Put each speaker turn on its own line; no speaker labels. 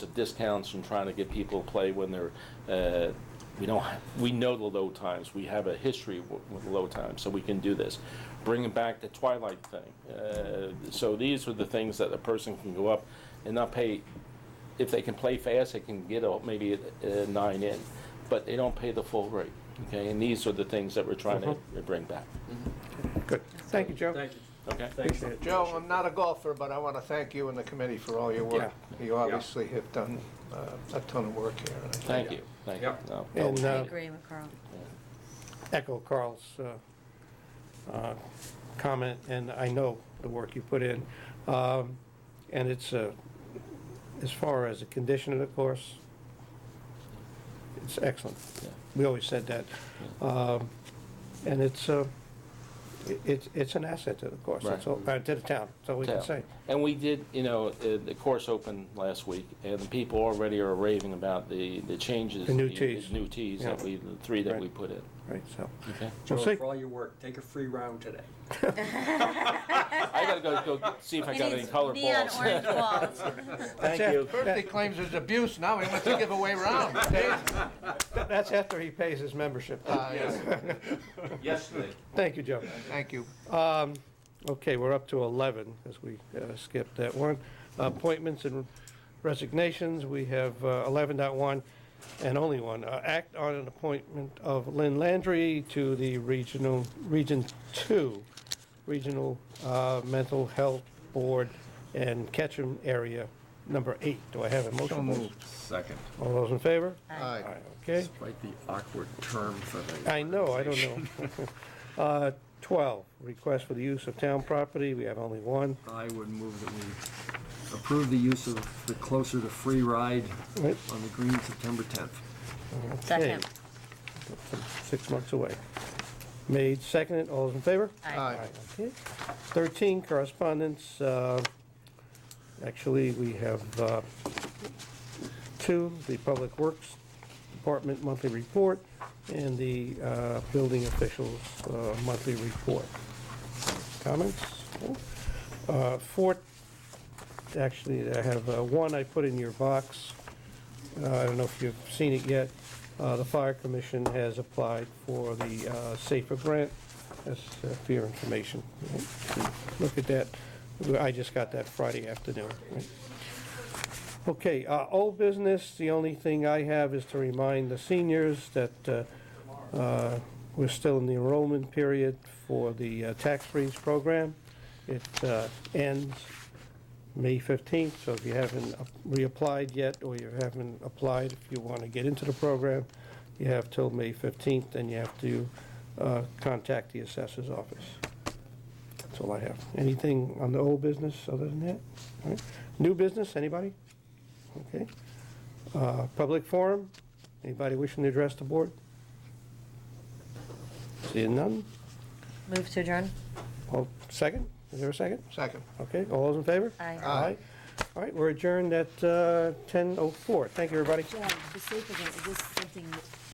the discounts and trying to get people to play when they're, uh, we don't, we know the low times, we have a history w- with low times, so we can do this. Bringing back the twilight thing. Uh, So these are the things that a person can go up and not pay, if they can play fast, they can get a- maybe a a nine in, but they don't pay the full rate, okay? And these are the things that we're trying to bring back,
Good. Thank you, Joe.
Thank you.
okay?
Appreciate it.
Joe, I'm not a golfer, but I want to thank you and the committee for all your work. You obviously have done uh, a ton of work here. and I
Thank you, thank you.
Yep.
No, that
And
was-
uh,
agree with Carl.
echo Carl's uh, uh, comment, and I know the work you put in. Um, And it's, uh, as far as the condition of the course, it's excellent.
Yeah.
We always said that. Um, And it's, uh, i- it's it's an asset to the course, that's all, uh, to the town, that's all we can
Yeah.
say.
And we did, you know, uh, the course opened last week, and the people already are raving about the, the changes.
The new tees.
New tees that
Yeah.
we, the three that
Right.
we put in.
Right, so,
Okay.
we'll see.
Joe, for all your work, take a free round today.
I gotta go, go see if I got any colored
Neon
balls.
orange balls.
That's it.
First he claims it's abuse, now he wants to give away rounds.
That's after he pays his membership.
Yesterday.
Thank you, Joe.
Thank you.
Um, Okay, we're up to 11, because we uh, skipped that one. Appointments and resignations, we have uh, 11.1 and only one. Uh, Act on an appointment of Lynn Landry to the Regional, Region 2, Regional uh, Mental Health Board and Ketchum Area Number 8. Do I have a motion?
Second.
All those in favor? All
Aye.
right, okay.
Quite the awkward term for the.
I know, I don't know. Uh, 12, request for the use of town property, we have only one.
I would move that we approve the use of the closer to free ride
Right,
on the green September 10th.
Second.
Six months away. Made, seconded, all those in favor?
Aye.
Aye.
Okay. 13, correspondence, uh, actually, we have uh, two, the Public Works Department monthly report and the uh, building officials uh, monthly report. Comments? Uh, Four, actually, I have uh, one I put in your box. Uh, I don't know if you've seen it yet. Uh, The Fire Commission has applied for the uh, SAFER grant. That's uh, for your information. Look at that. I just got that Friday afternoon. Okay, uh, old business, the only thing I have is to remind the seniors that uh, uh, we're still in the enrollment period for the uh, tax freeze program. It uh, ends May 15th, so if you haven't reapplied yet, or you haven't applied, if you want to get into the program, you have till May 15th, and you have to uh, contact the assessor's office. That's all I have. Anything on the old business other than that? All right. New business, anybody? Okay. Uh, Public forum, anybody wishing to address the board? Seeing none?
Move to adjourn.
All, second? Is there a second?
Second.
Okay, all those in favor?
Aye.
Aye.
All right, we're adjourned at uh, 10:04. Thank you, everybody.
Jen, the safe again, is this something